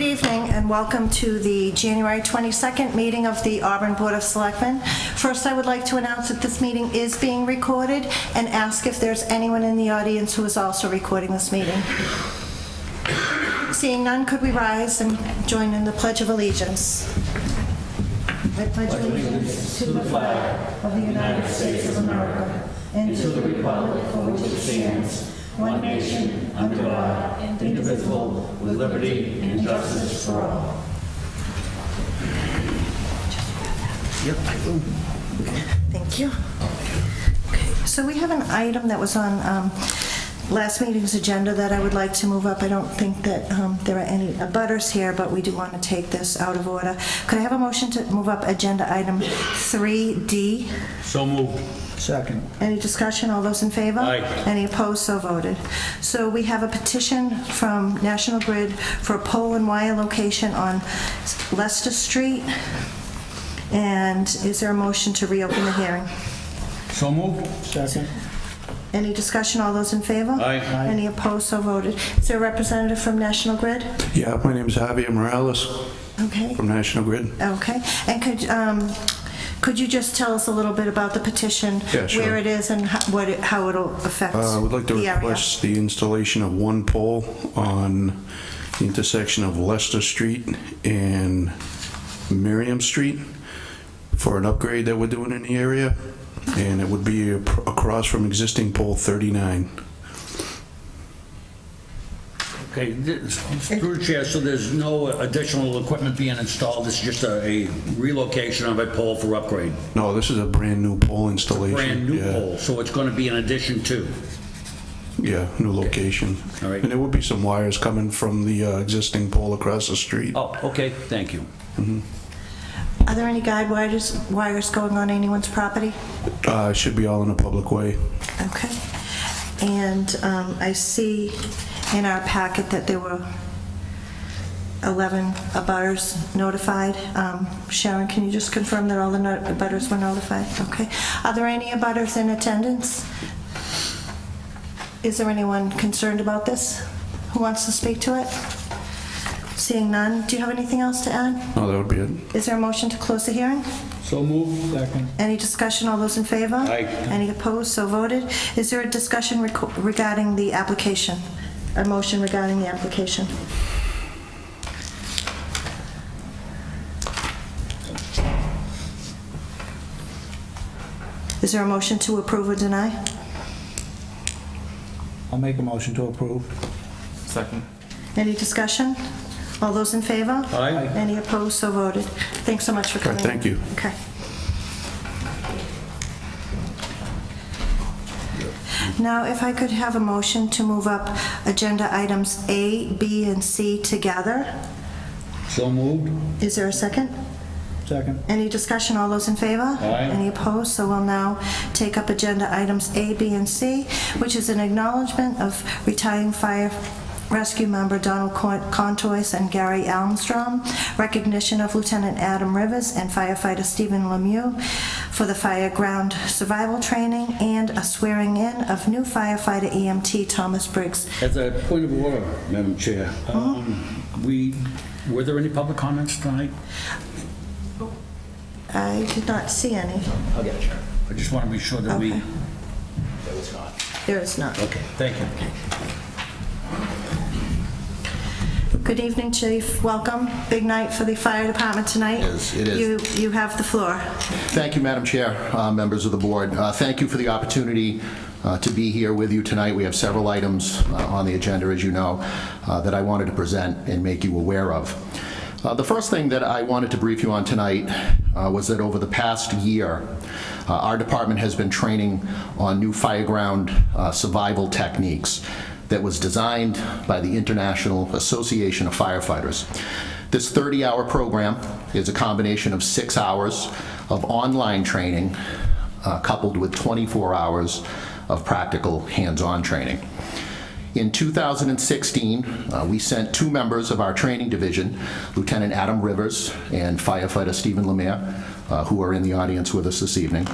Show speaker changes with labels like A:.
A: evening and welcome to the January 22nd meeting of the Auburn Board of Selectmen. First, I would like to announce that this meeting is being recorded and ask if there's anyone in the audience who is also recording this meeting. Seeing none, could we rise and join in the Pledge of Allegiance? I pledge allegiance to the flag of the United States of America and to the republic for which it stands, one nation, under God, indivisible, with liberty and justice for all. Thank you. Okay, So we have an item that was on um, last meeting's agenda that I would like to move up. I don't think that um, there are any abutters here, but we do want to take this out of order. Could I have a motion to move up agenda item 3D?
B: So moved.
C: Second.
A: Any discussion? All those in favor?
B: Aye.
A: Any opposed? So voted. So we have a petition from National Grid for a pole and wire location on Leicester Street. And is there a motion to reopen the hearing?
B: So moved.
C: Second.
A: Any discussion? All those in favor?
B: Aye. Aye.
A: Any opposed? So voted. Is there a representative from National Grid?
D: Yeah, my name's Javier Morales
A: Okay.
D: from National Grid.
A: Okay. And could, um, could you just tell us a little bit about the petition?
D: Yeah, sure.
A: Where it is and ho- what, it- how it'll affect the
D: Uh,
A: area?
D: I would like to request the installation of one pole on the intersection of Leicester Street and Miriam Street for an upgrade that we're doing in the area, and it would be ap- across from existing pole 39.
B: Okay, this- through the chair, so there's no additional equipment being installed, this is just a a relocation of a pole for upgrade.
D: No, this is a brand-new pole installation.
B: Brand new
D: Yeah,
B: pole, so it's gonna be an addition to.
D: Yeah, new location.
B: All right.
D: And there would be some wires coming from the uh, existing pole across the street.
B: Oh, okay, thank you.
A: Are there any guide wires, wires going on anyone's property?
D: Uh, it Should be all in a public way.
A: Okay. And um, I see in our packet that there were 11 abutters notified. Um, Sharon, can you just confirm that all the no- abutters were notified? Okay. Are there any abutters in attendance? Is there anyone concerned about this who wants to speak to it? Seeing none, do you have anything else to add?
D: No, that would be it.
A: Is there a motion to close the hearing?
C: So moved. Second.
A: Any discussion, all those in favor?
B: Aye.
A: Any opposed, so voted. Is there a discussion reco- regarding the application? A motion regarding the application? Is there a motion to approve or deny?
C: I'll make a motion to approve.
E: Second.
A: Any discussion? All those in favor?
B: Aye.
A: Any opposed, so voted. Thanks so much for coming. in.
D: thank you.
A: Okay. Now, if I could have a motion to move up agenda items A, B, and C together.
B: So moved?
A: Is there a second?
C: Second.
A: Any discussion? All those in favor?
B: Aye.
A: Any opposed? So we'll now take up agenda items A, B, and C, which is an acknowledgement of retiring fire rescue member Donald Con- Contois and Gary Almstrom, recognition of Lieutenant Adam Rivers and firefighter Stephen Lemieux for the fire ground survival training, and a swearing in of new firefighter EMT Thomas Briggs.
B: As a point of order, Madam Chair, um, we, were there any public comments tonight?
A: I did not see any.
B: I just want to be sure that we,
A: Okay. There is none.
B: okay, thank you.
A: Good evening, Chief. Welcome. Big night for the fire department tonight.
F: is, it is.
A: You, you have the floor.
F: Thank you, Madam Chair, uh, members of the board. Uh, Thank you for the opportunity uh, to be here with you tonight. We have several items uh, on the agenda, as you know, uh, that I wanted to present and make you aware of. Uh, The first thing that I wanted to brief you on tonight uh, was that over the past year, uh, our department has been training on new fireground uh, survival techniques that was designed by the International Association of Firefighters. This 30-hour program is a combination of six hours of online training uh, coupled with 24 hours of practical hands-on training. In 2016, uh, we sent two members of our training division, Lieutenant Adam Rivers and firefighter Stephen Lemire, uh, who are in the audience with us this evening,